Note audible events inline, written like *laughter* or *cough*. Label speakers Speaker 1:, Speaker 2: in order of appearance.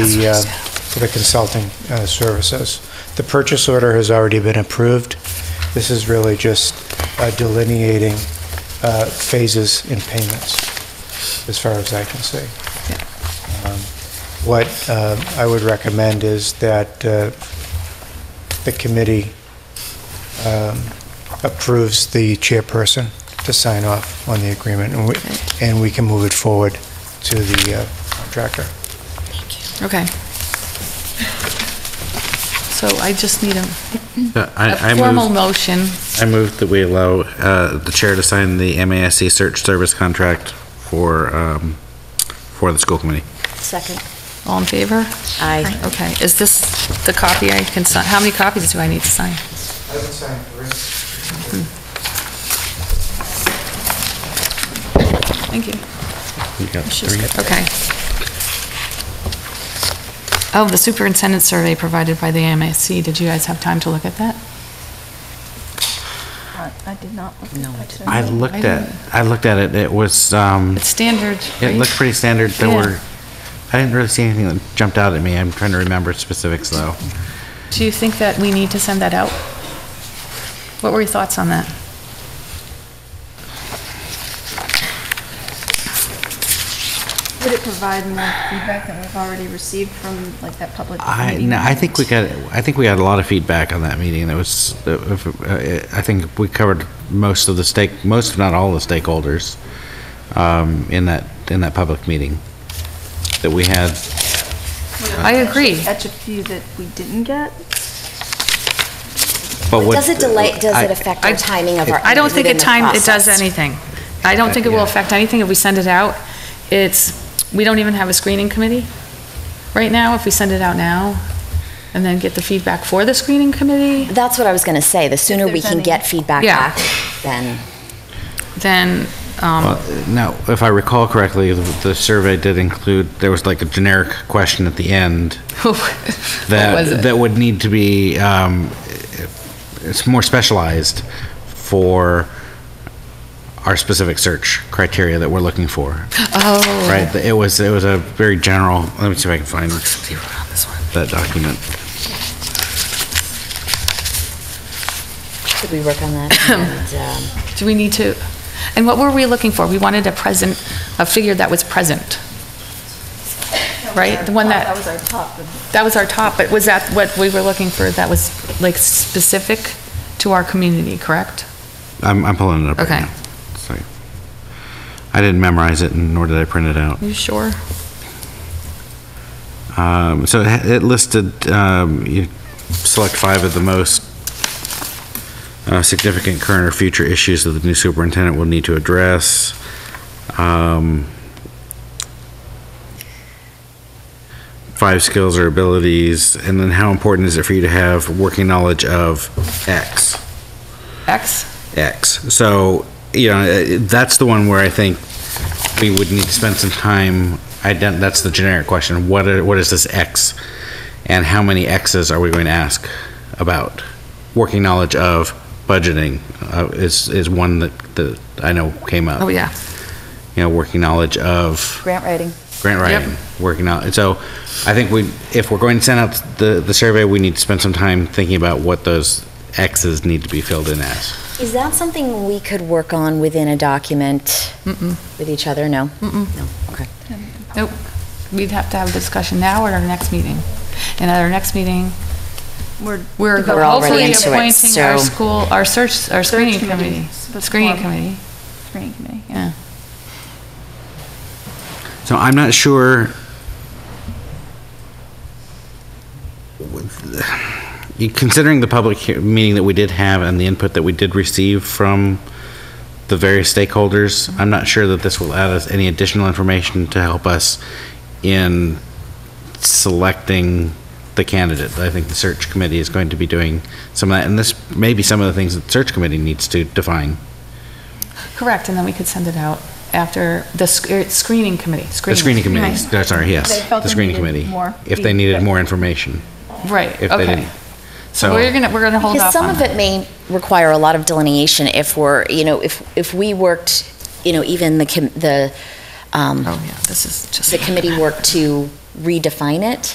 Speaker 1: the, uh, for the consulting uh, services. The purchase order has already been approved. This is really just uh, delineating uh, phases in payments, as far as I can see. Um, What uh, I would recommend is that uh, the committee um, approves the chairperson to sign off on the agreement, and we- and we can move it forward to the uh, contractor.
Speaker 2: Okay. So I just need a
Speaker 3: Uh,
Speaker 2: a
Speaker 3: I, I
Speaker 2: formal
Speaker 3: moved,
Speaker 2: motion.
Speaker 3: I moved that we allow uh, the chair to sign the MASC search service contract for, um, for the school committee.
Speaker 4: Second.
Speaker 2: All in favor?
Speaker 4: Aye.
Speaker 2: Okay, is this the copy I can sign? How many copies do I need to sign?
Speaker 1: I would sign three.
Speaker 2: Thank you.
Speaker 3: You got
Speaker 2: She's
Speaker 3: three?
Speaker 2: good. Okay. Oh, the superintendent survey provided by the MASC, did you guys have time to look at that?
Speaker 5: I did not look at
Speaker 4: No, I
Speaker 5: that, so-
Speaker 3: I looked at, I looked at it, it was, um,
Speaker 2: It's standard,
Speaker 3: it
Speaker 2: right?
Speaker 3: looked pretty standard, there
Speaker 2: Yeah.
Speaker 3: were, I didn't really see anything that jumped out at me, I'm trying to remember specifics though.
Speaker 2: Do you think that we need to send that out? What were your thoughts on that?
Speaker 5: Would it provide more feedback that we've already received from, like, that public
Speaker 3: I,
Speaker 5: meeting?
Speaker 3: no, I think we got, I think we got a lot of feedback on that meeting, that was, uh, I think we covered most of the stake, most if not all the stakeholders um, in that, in that public meeting that we had. Uh,
Speaker 2: I agree.
Speaker 5: Catch a few that we didn't get?
Speaker 3: But what-
Speaker 4: Does it delay, does it
Speaker 3: I-
Speaker 4: affect our timing of our?
Speaker 2: I don't think
Speaker 4: meeting
Speaker 2: it time, it does
Speaker 4: process?
Speaker 2: anything. I don't think it will
Speaker 3: Yeah.
Speaker 2: affect anything if we send it out. It's, we don't even have a screening committee right now, if we send it out now, and then get the feedback for the screening committee,
Speaker 4: That's what I was going to say. The sooner we
Speaker 5: there's
Speaker 4: can
Speaker 5: any.
Speaker 4: get feedback
Speaker 2: Yeah.
Speaker 4: back, then.
Speaker 2: then, um, *laughs*
Speaker 3: Well, No, if I recall correctly, the the survey did include, there was like a generic question at the end
Speaker 2: what was
Speaker 3: that,
Speaker 2: it?
Speaker 3: that would need to be, um, it's more specialized for our specific search criteria that we're looking for,
Speaker 2: Oh.
Speaker 3: right? It was, it was a very general, let me see if I can find that document.
Speaker 4: Should we work
Speaker 2: *laughs*
Speaker 4: on that? And, um,
Speaker 2: Do we need to, and what were we looking for? We wanted a present, a figure that was present. Right? The one that-
Speaker 5: That was our top.
Speaker 2: That was our top, but was that what we were looking for? That was like specific to our community, correct?
Speaker 3: I'm, I'm pulling it up right
Speaker 2: Okay.
Speaker 3: now. Sorry. I didn't memorize it, and nor did I print it out.
Speaker 2: You sure?
Speaker 3: Um, So it ha- it listed, um, you select five of the most uh, significant current or future issues that the new superintendent will need to address. Um, Five skills or abilities, and then how important is it for you to have working knowledge of X?
Speaker 2: X?
Speaker 3: X. So, you know, uh, that's the one where I think we would need to spend some time, ident, that's the generic question, what are, what is this X? And how many X's are we going to ask about? Working knowledge of budgeting uh, is, is one that, that I know came up.
Speaker 2: Oh, yeah.
Speaker 3: You know, working knowledge of
Speaker 4: Grant writing.
Speaker 3: grant
Speaker 2: Yep.
Speaker 3: writing, working out. So I think we, if we're going to send out the, the survey, we need to spend some time thinking about what those X's need to be filled in as.
Speaker 4: Is that something we could work on within a document
Speaker 2: Mm-mm.
Speaker 4: with each other? No?
Speaker 2: Mm-mm.
Speaker 4: No, okay.
Speaker 2: Nope. We'd have to have a discussion now or at our next meeting. And at our next meeting,
Speaker 5: We're
Speaker 2: we're
Speaker 4: We're already
Speaker 2: hopefully
Speaker 4: into it,
Speaker 2: appointing our
Speaker 4: so-
Speaker 2: school, our search, our screening committee. Screening committee,
Speaker 5: Screening committee, yeah.
Speaker 2: yeah.
Speaker 3: So I'm not sure. You- Considering the public he- meeting that we did have and the input that we did receive from the various stakeholders, I'm not sure that this will add us any additional information to help us in selecting the candidate. I think the search committee is going to be doing some of that, and this may be some of the things that the search committee needs to define.
Speaker 2: Correct, and then we could send it out after the sc- er, screening committee.
Speaker 3: The screening committee,
Speaker 2: Right.
Speaker 3: sorry, yes,
Speaker 5: They felt
Speaker 3: the
Speaker 5: they
Speaker 3: screening committee.
Speaker 5: needed more
Speaker 3: If they needed
Speaker 5: feedback.
Speaker 3: more information.
Speaker 2: Right,
Speaker 3: if they
Speaker 2: okay.
Speaker 3: didn't.
Speaker 2: So we're gonna, we're gonna hold
Speaker 4: Because
Speaker 2: off
Speaker 4: some
Speaker 2: on
Speaker 4: of
Speaker 2: that.
Speaker 4: it may require a lot of delineation if we're, you know, if, if we worked, you know, even the, com- the, um,
Speaker 2: Oh, yeah, this is just.
Speaker 4: the committee work to redefine it.